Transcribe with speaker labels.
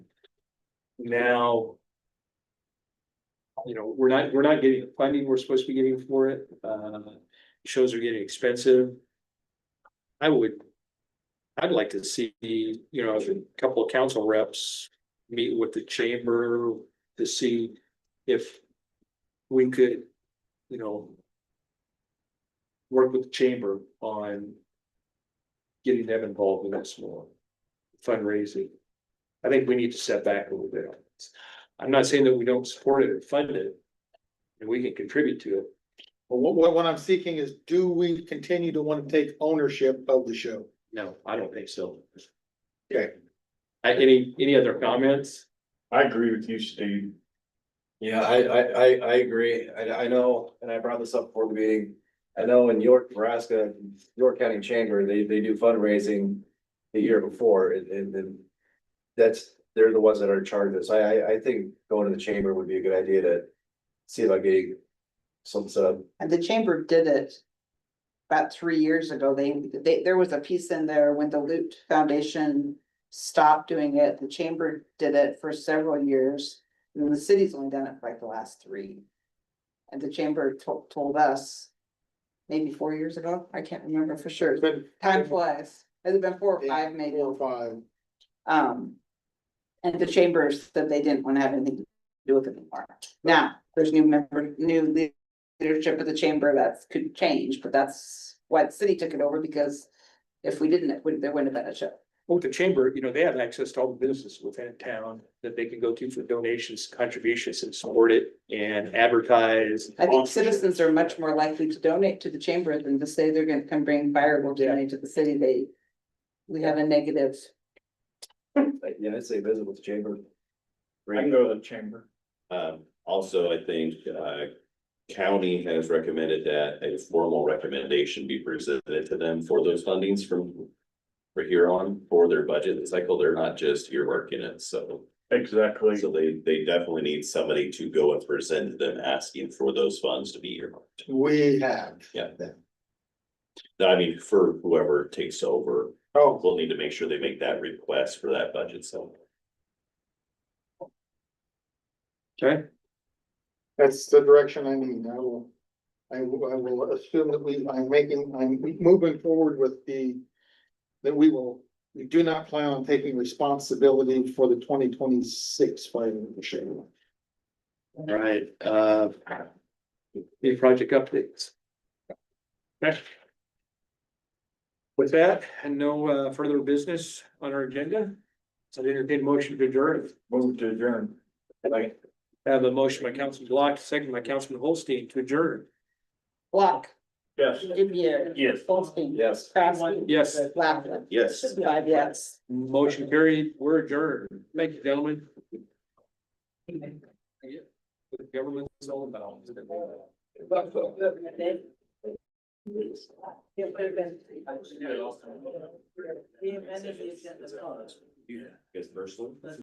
Speaker 1: now. You know, we're not, we're not getting the funding we're supposed to be getting for it, uh, shows are getting expensive. I would. I'd like to see, you know, a couple of council reps meet with the chamber to see if we could, you know. Work with the chamber on getting them involved in this more fundraising. I think we need to step back a little bit. on this. I'm not saying that we don't support it or fund it. And we can contribute to it.
Speaker 2: Well, what, what, what I'm seeking is, do we continue to want to take ownership of the show?
Speaker 1: No, I don't think so.
Speaker 2: Okay.
Speaker 1: Uh, any, any other comments?
Speaker 3: I agree with you, Steve.
Speaker 4: Yeah, I, I, I, I agree. I, I know, and I brought this up before the meeting. I know in York, Nebraska, York County Chamber, they, they do fundraising the year before and, and then that's, they're the ones that are in charge of this. I, I, I think going to the chamber would be a good idea to see about getting some, some,
Speaker 5: And the chamber did it. About three years ago, they, they, there was a piece in there when the Loot Foundation stopped doing it, the chamber did it for several years. And the city's only done it for like the last three. And the chamber told, told us. Maybe four years ago, I can't remember for sure,
Speaker 2: It's been
Speaker 5: time flies, has it been four or oh five maybe?
Speaker 2: Four or five.
Speaker 5: Um. And the chambers said they didn't want to have anything to do with it anymore. Now, there's new member, new lea- leadership of the chamber that's could change, but that's why the city took it over because. If we didn't, it wouldn't, there wouldn't have been a show.
Speaker 1: Well, With the chamber, you know, they have access to all the businesses within town that they can go to for donations, contributions and support it and advertise.
Speaker 5: I think citizens are much more likely to donate to the chamber than to say they're gonna come bring fireworks
Speaker 1: Yeah.
Speaker 5: money to the city. They. We have a negative.
Speaker 4: like, yeah, I'd say visit with the chamber.
Speaker 3: I can go to the chamber.
Speaker 6: Um, also, I think, uh, county has recommended that a formal recommendation be presented to them for those fundings from. For here on, for their budget cycle, they're not just earmarking it, so,
Speaker 3: Exactly.
Speaker 6: so they, they definitely need somebody to go and present to them asking for those funds to be earmarked.
Speaker 2: We have.
Speaker 6: I mean, for whoever takes over,
Speaker 2: Oh,
Speaker 6: we'll need to make sure they make that request for that budget, so.
Speaker 1: Okay,
Speaker 2: that's the direction I need. I will. I will, I will assume that we, I'm making, I'm moving forward with the. That we will, we do not plan on taking responsibility for the twenty twenty-six fighting machine.
Speaker 1: all right, uh. Any project updates? Okay. With that, and no uh, further business on our agenda, so I entertain a motion to adjourn.
Speaker 3: Move to adjourn. Like,
Speaker 1: I Have a motion by Councilman Block, second by Councilman Holstein to adjourn.
Speaker 5: Block,
Speaker 3: yes.
Speaker 5: Demier,
Speaker 3: Yes.
Speaker 5: Holstein,
Speaker 4: Yes.
Speaker 5: Craftsman,
Speaker 1: Yes,
Speaker 5: Laughlin.
Speaker 6: Yes.
Speaker 5: Five yes.
Speaker 1: motion carried, we're adjourned. Thank you, gentlemen. Yeah, What government is all about.
Speaker 5: It would have been.
Speaker 6: Yeah, guess personally.